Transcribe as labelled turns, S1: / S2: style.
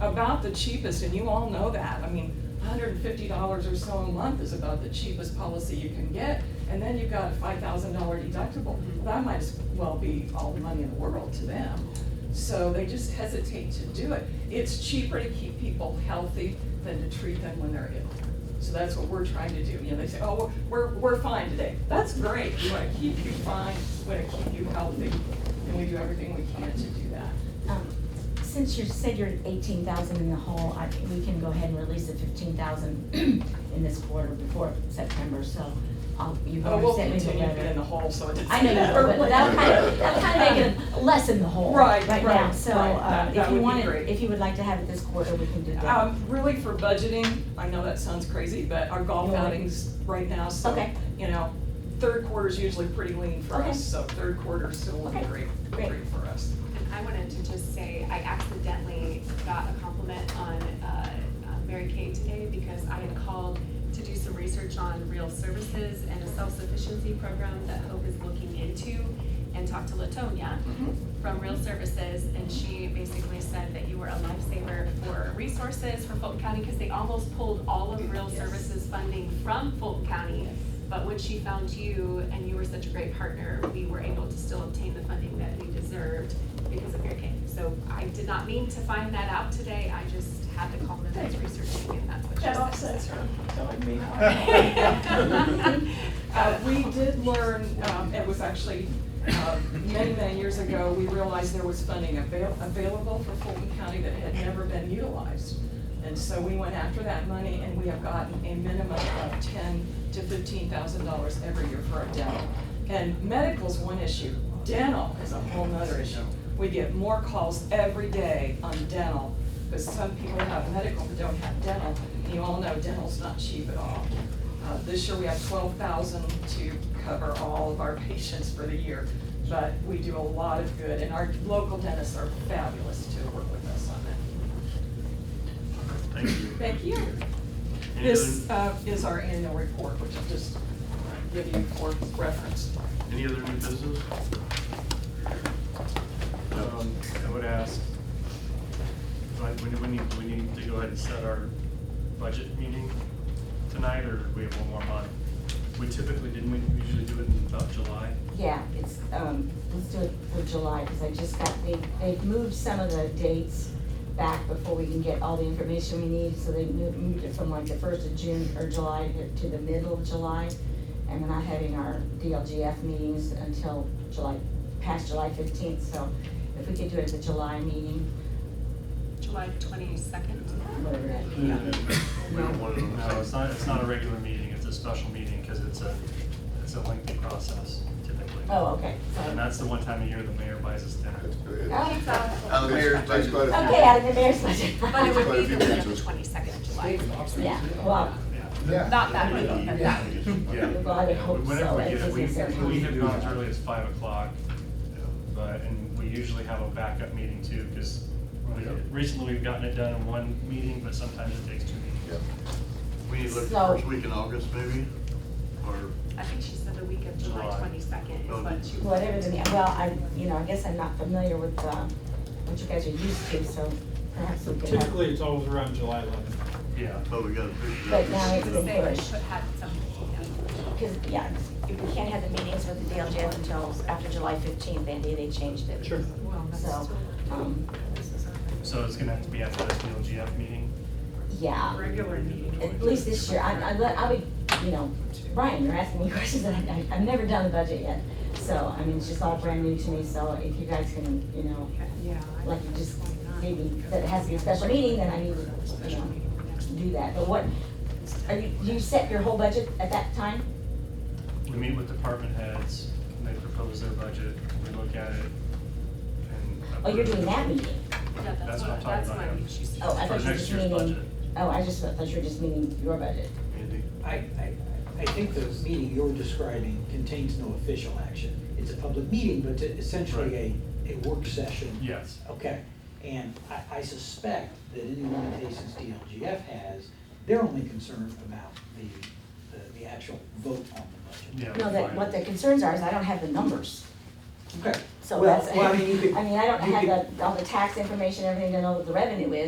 S1: about the cheapest, and you all know that. I mean, hundred and fifty dollars or so a month is about the cheapest policy you can get, and then you've got a five thousand dollar deductible. Well, That might as well be all the money in the world to them. So they just hesitate to do it. It's cheaper to keep people healthy than to treat them when they're ill. So that's what we're trying to do. You know, they say, oh, we're, we're we're fine today. That's great. We want to keep you fine, we want to keep you healthy, and we do everything we can to do that.
S2: Um, Since you said you're eighteen thousand in the hole, I, we can go ahead and release the fifteen thousand in this quarter before September, so, um, you've
S1: Oh,
S2: already
S1: we'll
S2: sent me the
S1: continue to
S2: letter.
S1: be in the hole, so it doesn't.
S2: I know that, but that'll kind of, that'll kind of make it less in the hole
S1: Right,
S2: right
S1: right,
S2: now, so,
S1: right.
S2: uh,
S1: That- that
S2: if
S1: would
S2: you
S1: be
S2: wanted,
S1: great.
S2: if you would like to have it this quarter, we can do that.
S1: Um, really for budgeting, I know that sounds crazy, but our golf
S2: You're right.
S1: outings right now, so,
S2: Okay.
S1: you know, third quarter's usually pretty lean for
S2: Okay.
S1: us, so third quarter's still looking
S2: Okay,
S1: great,
S2: great.
S1: great for us.
S3: And I wanted to just say, I accidentally got a compliment on uh, uh, Mary Kay today because I had called to do some research on real services and a self-sufficiency program that Hope is looking into and talked to Latonia from Real Services, and she basically said that you were a lifesaver for resources for Fulton County, because they almost pulled all of Real Services funding from Fulton County. But when she found you, and you were such a great partner, we were able to still obtain the funding that we deserved because of Mary Kay. So I did not mean to find that out today, I just had to call them as researching, and that's what she said.
S1: her telling me how. Uh,
S3: Uh,
S1: we did learn, um, it was actually, uh, many, many years ago, we realized there was funding avail- available for Fulton County that had never been utilized. And so we went after that money and we have gotten a minimum of ten to fifteen thousand dollars every year for our dental. And medical's one issue, dental is a whole nother issue. We get more calls every day on dental, because some people have medical but don't have dental. And you all know dental's not cheap at all. Uh, This year, we have twelve thousand to cover all of our patients for the year, but we do a lot of good, and our local dentists are fabulous to work with us on that.
S4: Thank you.
S1: Thank you.
S4: Any
S1: This
S4: other-
S1: uh, is our annual report, which I'll just give you for reference.
S4: Any other new business? Um, I would ask, like, when do we need, we need to go ahead and set our budget meeting tonight, or we have one more month? We typically, didn't we usually do it in about July?
S2: Yeah, it's, um, let's do it for July, because I just got, they, they've moved some of the dates back before we can get all the information we need, so they mo- moved it from like the first of June or July to- to the middle of July. And we're not having our DLGF meetings until July, past July fifteenth, so if we could do it at the July meeting,
S3: July twenty-second.
S2: whatever that is.
S4: We don't want to. No, it's not, it's not a regular meeting, it's a special meeting, because it's a, it's a lengthy process typically.
S2: Oh, okay, sorry.
S4: And that's the one time a year the mayor buys us dinner.
S5: Out of the mayor's budget.
S2: Okay, out of the mayor's budget.
S3: But it would be the
S5: Quite a
S3: week
S5: few
S3: of twenty-second of July.
S2: Yeah, well,
S5: Yeah.
S3: Not that week, but that week.
S2: well, I would hope
S4: Whenever
S2: so,
S4: we
S2: it
S4: get it,
S2: doesn't
S4: we,
S2: sound-
S4: we have gone as early as five o'clock, but, and we usually have a backup meeting too, because recently we've gotten it done in one meeting, but sometimes it takes two meetings.
S6: We need to look
S2: So-
S6: first week in August maybe, or,
S3: I think she said the week of July
S4: July.
S3: twenty-second is what she.
S2: whatever the, well, I, you know, I guess I'm not familiar with, uh, what you guys are used to, so perhaps we uh, could have.
S7: Typically, it's always around July 11th.
S4: Yeah,
S6: but we gotta push it
S2: But now
S6: up.
S2: it's
S3: She was
S2: been
S3: saying we
S2: pushed,
S3: should have something done.
S2: because, yeah, if we can't have the meetings with the DLJ until after July fifteenth, Andy, they changed it.
S7: Sure.
S2: So, um,
S4: so it's gonna have to be after this DLGF meeting.
S2: yeah,
S3: Regular meeting.
S2: at least this year, I, I, let- I'll be, you know, Brian, you're asking me questions that I, I've never done the budget yet. So, I mean, it's just all brand new to me, so if you guys can, you know,
S3: Yeah. I
S2: like you
S3: think
S2: just,
S3: it's going on.
S2: maybe, that it has to be a special meeting, then I need to, you
S3: Special
S2: know,
S3: meeting, yeah.
S2: do that, but what, are you, do you set your whole budget at that time?
S4: We meet with department heads, and they propose their budget, we look at it, and.
S2: Oh, you're doing that meeting?
S3: Yeah, that's
S4: That's
S3: what,
S4: what I'm talking
S3: that's
S4: about,
S3: why
S4: yeah.
S3: she said.
S2: Oh, I
S4: For
S2: thought you were
S4: next
S2: just
S4: year's budget.
S2: meaning, oh, I just thought you were just meaning your budget.
S6: Andy,
S8: I, I, I think the meeting you're describing contains no official action. It's a public meeting, but it's essentially a, a work session.
S4: Yes.
S8: Okay, and I, I suspect that any limitations DLGF has, they're only concerned about the, the, the actual vote on the budget.
S4: Yeah.
S2: No, that, what the concerns are is I don't have the numbers,
S8: Okay.
S2: so
S8: Well,
S2: that's, I
S8: Well, I mean, you
S2: mean,
S8: could.
S2: I don't
S8: you could-
S2: have the, all the tax information, everything to know what the revenue is,